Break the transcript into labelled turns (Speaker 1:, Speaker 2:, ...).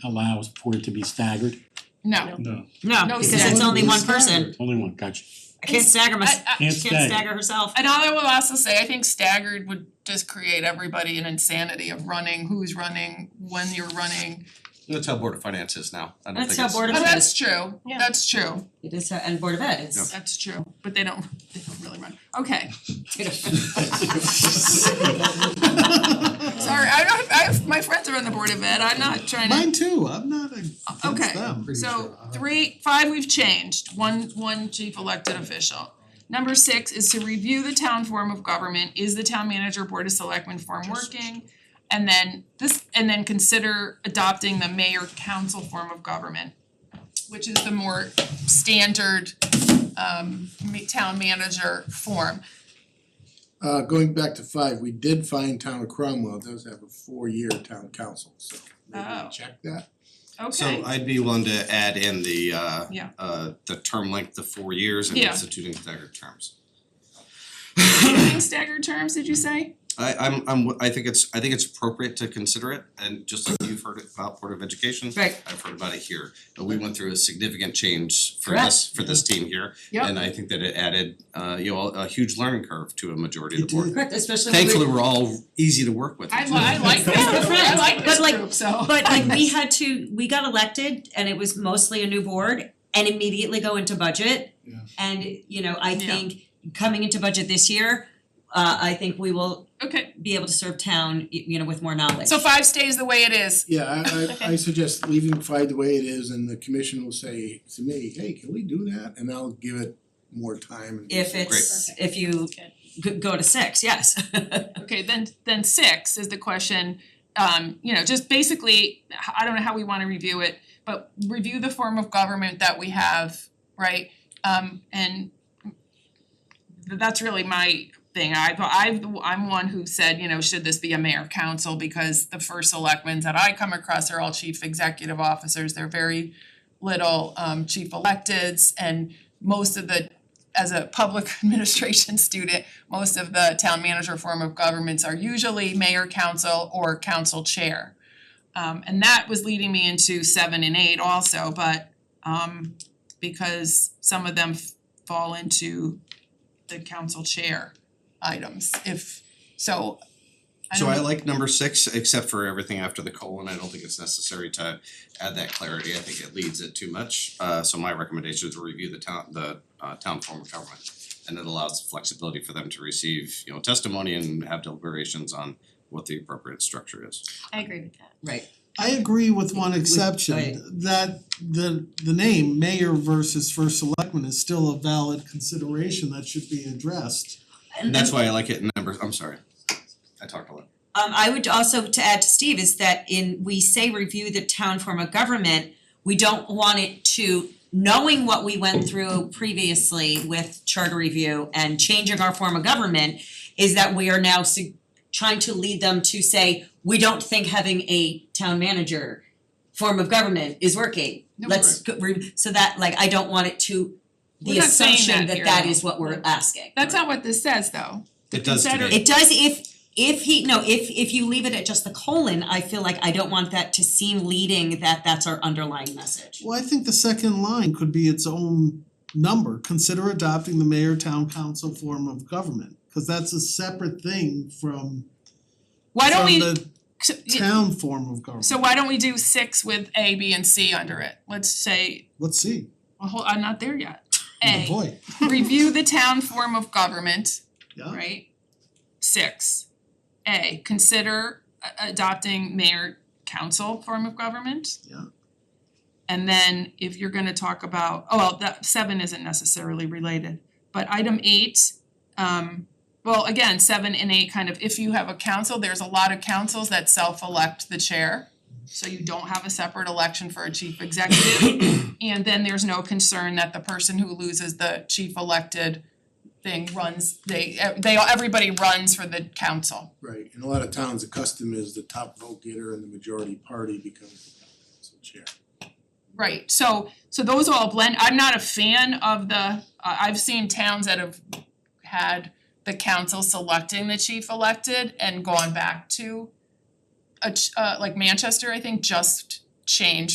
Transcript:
Speaker 1: allows for it to be staggered?
Speaker 2: No,
Speaker 3: No,
Speaker 2: No,
Speaker 4: No, because
Speaker 2: because
Speaker 4: it's only
Speaker 2: it's
Speaker 4: one person,
Speaker 1: Only one, gotcha.
Speaker 4: I can't stagger my,
Speaker 2: I- I-
Speaker 4: she
Speaker 1: Can't
Speaker 4: can't
Speaker 1: stagger.
Speaker 4: stagger herself.
Speaker 2: And all I will also say, I think staggered would just create everybody an insanity of running, who's running, when you're running.
Speaker 5: That's how Board of Finance is now, I don't
Speaker 4: That's
Speaker 5: think
Speaker 4: how
Speaker 5: it's,
Speaker 4: Board of
Speaker 2: Oh,
Speaker 4: Ed-
Speaker 2: that's true,
Speaker 4: Yeah.
Speaker 2: that's true,
Speaker 4: it is, how- and Board of Ed, it's.
Speaker 2: that's true, but they don't, they don't really run, okay. Sorry, I don't, I have, my friends are on the board of ed, I'm not trying to.
Speaker 6: Um, Mine too, I'm not against
Speaker 2: Okay,
Speaker 6: them.
Speaker 2: Oh, So
Speaker 6: Uh-huh.
Speaker 2: three, five, we've changed, one one chief elected official. Number six is to review the town form of government, is the town manager board of selectmen form working? And then this, and then consider adopting the mayor council form of government, which is the more standard um ma- town manager form.
Speaker 6: Uh, going back to five, we did find Town of Cromwell does have a four-year town council, so maybe
Speaker 2: Oh.
Speaker 6: we check that.
Speaker 2: Okay,
Speaker 5: so I'd be willing to add in the uh
Speaker 2: Yeah.
Speaker 5: uh the term length of four years and
Speaker 2: Yeah.
Speaker 5: instituting staggered terms.
Speaker 2: Including staggered terms, did you say?
Speaker 5: I I'm I'm I think it's I think it's appropriate to consider it and just like you've heard about Board of Education.
Speaker 4: Right.
Speaker 5: I've heard about it here, but we went through a significant change for this for this team here.
Speaker 2: Yep.
Speaker 5: And I think that it added uh you know a huge learning curve to a majority of
Speaker 6: It
Speaker 5: the board.
Speaker 6: did.
Speaker 4: Correct, especially when we-
Speaker 5: Thankfully, we're all easy to work with.
Speaker 2: I li- I like that, I like this
Speaker 4: But like-
Speaker 2: group, so.
Speaker 4: But like we had to, we got elected and it was mostly a new board and immediately go into budget.
Speaker 6: Yeah.
Speaker 4: And you know, I
Speaker 2: Yeah.
Speaker 4: think coming into budget this year, uh I think we will
Speaker 2: Okay,
Speaker 4: be able to serve town, y- you know, with more knowledge.
Speaker 2: So five stays the way it is.
Speaker 6: Yeah, I I I suggest leaving five the way it is and the commission will say to me, hey, can we do that? And I'll give it more time and.
Speaker 4: If it's, if you
Speaker 2: Okay.
Speaker 4: g- go to six, yes.
Speaker 2: Okay, then then six is the question, um, you know, just basically, h- I don't know how we wanna review it, but review the form of government that we have, right? Um and th- that's really my thing. I thought I've I'm one who said, you know, should this be a mayor council? Because the first electmen that I come across are all chief executive officers. They're very little um chief electeds and most of the as a public administration student, most of the town manager form of governments are usually mayor, council, or council chair. Um and that was leading me into seven and eight also, but um because some of them f- fall into the council chair items if, so I
Speaker 5: So
Speaker 2: don't
Speaker 5: I
Speaker 2: know.
Speaker 5: like number six, except for everything after the colon, I don't think it's necessary to add that clarity, I think it leads it too much. Uh so my recommendation is to review the town, the uh town form of government. And it allows flexibility for them to receive, you know, testimony and have deliberations on what the appropriate structure is.
Speaker 4: I agree with that. Right.
Speaker 7: I agree with one
Speaker 4: With-
Speaker 7: exception,
Speaker 4: right.
Speaker 7: that the the name mayor versus first selectman is still a valid consideration that should be addressed.
Speaker 5: And that's why I like it in number, I'm sorry, I talked a lot.
Speaker 4: Um I would also to add to Steve is that in we say review the town form of government, we don't want it to knowing what we went through previously with charter review and changing our form of government is that we are now su- trying to lead them to say, we don't think having a town manager form of government is working.
Speaker 2: No,
Speaker 4: Let's go re- so that like I don't want it to the
Speaker 2: We're not saying that
Speaker 4: assumption that
Speaker 2: here.
Speaker 4: that is what we're asking.
Speaker 2: That's not what this says though.
Speaker 5: It does
Speaker 2: Consider-
Speaker 5: today.
Speaker 4: It does if if he, no, if if you leave it at just the colon, I feel like I don't want that to seem leading that that's our underlying message.
Speaker 7: Well, I think the second line could be its own number, consider adopting the mayor town council form of government, cause that's a separate thing from
Speaker 2: Why don't
Speaker 7: from
Speaker 2: we
Speaker 7: the town form of government.
Speaker 2: So why don't we do six with A, B, and C under it? Let's say,
Speaker 7: Let's see,
Speaker 2: well, hold, I'm not there yet.
Speaker 7: good
Speaker 2: A,
Speaker 7: point,
Speaker 2: review the town form of government,
Speaker 7: yeah.
Speaker 2: right? Six, A, consider a- adopting mayor council form of government.
Speaker 7: Yeah.
Speaker 2: And then if you're gonna talk about, oh, well, that seven isn't necessarily related, but item eight, um, well, again, seven and eight kind of, if you have a council, there's a lot of councils that self-elect the chair. So you don't have a separate election for a chief executive. And then there's no concern that the person who loses the chief elected thing runs, they, they, everybody runs for the council.
Speaker 6: Right, in a lot of towns, the custom is the top vote getter and the majority party becomes the town council chair.
Speaker 2: Right, so so those all blend, I'm not a fan of the, uh, I've seen towns that have had the council selecting the chief elected and gone back to a ch- uh like Manchester, I think, just change